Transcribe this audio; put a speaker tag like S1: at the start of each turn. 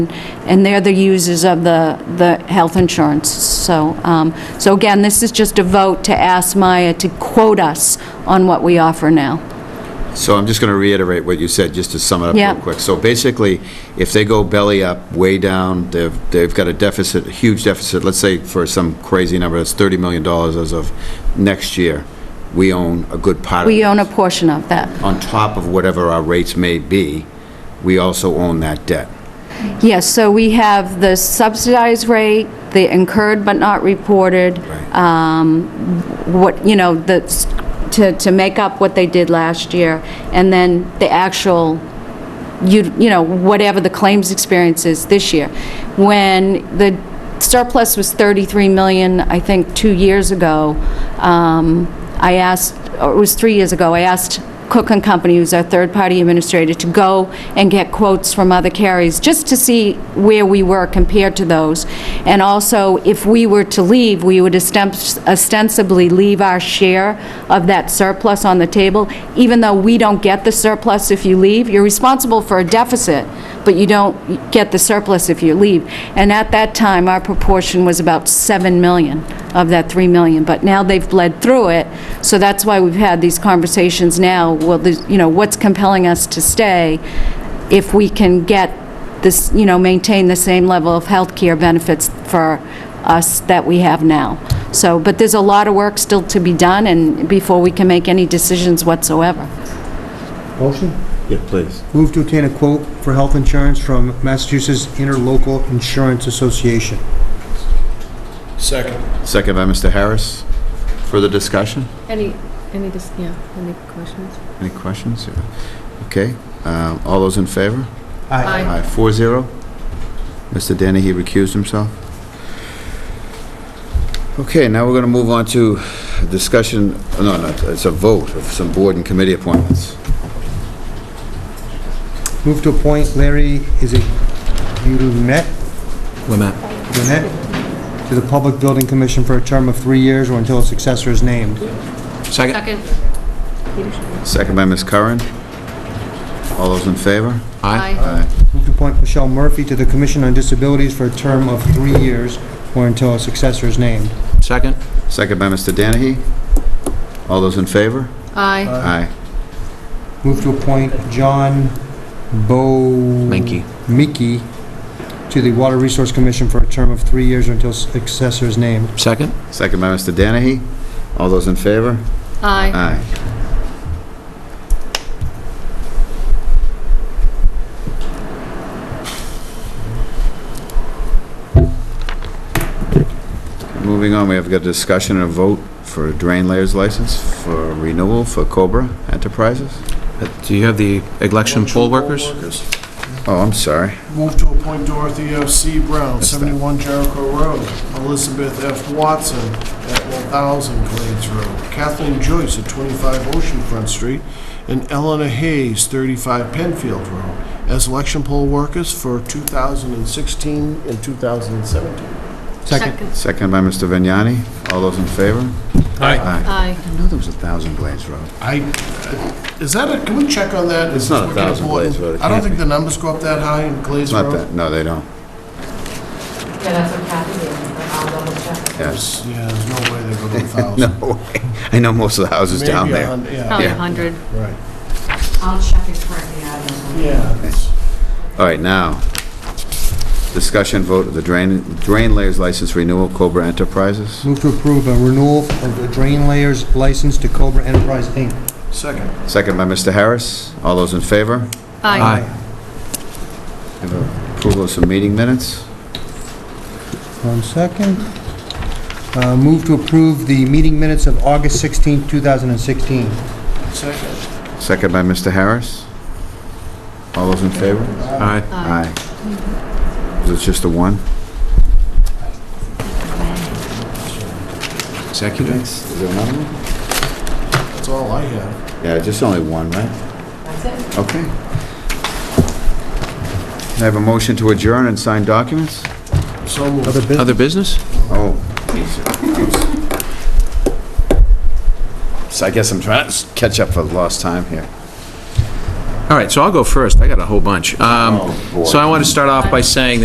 S1: and they're the users of the, the health insurance. So, um, so again, this is just a vote to ask Maya to quote us on what we offer now.
S2: So I'm just going to reiterate what you said, just to sum it up
S1: Yeah.
S2: real quick. So basically, if they go belly up, way down, they've, they've got a deficit, a huge deficit, let's say for some crazy number, that's $30 million as of next year, we own a good part of it.
S1: We own a portion of that.
S2: On top of whatever our rates may be, we also own that debt.
S1: Yes, so we have the subsidized rate, the incurred but not reported,
S2: Right.
S1: what, you know, the, to, to make up what they did last year, and then the actual, you, you know, whatever the claims experience is this year. When the surplus was 33 million, I think, two years ago, um, I asked, or it was three years ago, I asked Cook and Company, who's our third-party administrator, to go and get quotes from other carriers, just to see where we were compared to those. And also, if we were to leave, we would osten- ostensibly leave our share of that surplus on the table, even though we don't get the surplus if you leave. You're responsible for a deficit, but you don't get the surplus if you leave. And at that time, our proportion was about 7 million of that 3 million, but now they've bled through it, so that's why we've had these conversations now, well, there's- you know, what's compelling us to stay if we can get this, you know, maintain the same level of health care benefits for us that we have now. So, but there's a lot of work still to be done, and before we can make any decisions whatsoever.
S3: Motion?
S4: Yeah, please.
S3: Move to obtain a quote for health insurance from Massachusetts Interlocal Insurance Association.
S5: Second.
S1: Uh.
S2: Second by Mr. Harris. Further discussion?
S6: Any, any, dis- yeah, any questions?
S2: Any questions? Yeah. Okay, um, all those in favor?
S6: Aye.
S2: Aye, four zero. Mr. Danahy recused himself. Okay, now we're going to move on to discussion, no, no, it's a vote of some board and committee appointments.
S3: Move to appoint Larry, is it Gumet? Gumet? To the Public Building Commission for a term of three years or until a successor is named.
S4: Second?
S2: Second by Ms. Curran. All those in favor?
S6: Aye.
S2: Aye.
S3: Move to appoint Michelle Murphy to the Commission on Disabilities for a term of three years or until a successor is named.
S4: Second?
S2: Second by Mr. Danahy. All those in favor?
S6: Aye.
S2: Aye.
S3: Move to appoint John Bo...
S4: Minky.
S3: Mickey to the Water Resource Commission for a term of three years or until successor is named.
S4: Second?
S2: Second by Mr. Danahy. All those in favor?
S6: Aye.
S2: Aye. Moving on, we have got a discussion and a vote for a drain layers license for renewal for Cobra Enterprises.
S4: Uh, Do you have the election poll workers?
S2: Oh, I'm sorry.
S5: Move to appoint Dorothy F. C. Brown,
S2: that.
S5: 71 Jericho Road. Elizabeth F. Watson at 1000 Glades Road. Kathleen Joyce at 25 Oceanfront Street. And Eleanor Hayes, 35 Penfield Road, as election poll workers for 2016 and 2017.
S3: Second.
S2: Second by Mr. Vignani. All those in favor? Aye.
S6: Aye.
S2: I knew there was a Thousand Blades Road.
S5: I, is that a, can we check on that?
S2: It's not a
S5: Is that
S2: thousand
S5: important?
S2: Glades Road, it
S5: I don't
S2: can't
S5: think
S2: be.
S5: the numbers go up that high in Glades
S2: Not
S5: Road.
S2: that, no, they don't.
S7: Yeah, that's what Kathy did, but I'll double check.
S2: Yes.
S5: Yeah, there's no way they go to a thousand.
S2: No way. I know most of the houses down
S5: Maybe
S2: there.
S5: a hun- Yeah,
S6: Probably
S2: Yeah.
S6: 100.
S5: right.
S7: I'll check it for you, yeah, that's what-
S5: Yeah. it's-
S2: All right, now, discussion vote of the drain, drain layers license renewal Cobra Enterprises.
S3: Move to approve a renewal of the drain layers license to Cobra Enterprise, Inc.
S5: Second.
S2: Second by Mr. Harris. All those in favor?
S6: Aye.
S2: We have Approval of some meeting minutes.
S3: One second. Uh, Move to approve the meeting minutes of August 16, 2016.
S5: Second.
S2: Second by Mr. Harris. All those in favor?
S4: Aye.
S2: Aye. Is it just a one?
S4: Executive?
S2: Is there another one?
S5: That's all I have.
S2: Yeah, just only one, right?
S7: That's it.
S2: Okay. Can I have a motion to adjourn and sign documents?
S5: So moved.
S3: Other business?
S4: Other business?
S2: Oh. So I guess I'm trying to catch up for lost time here.
S4: All right, so I'll go first. I got a whole bunch. Um, So I want to start off by saying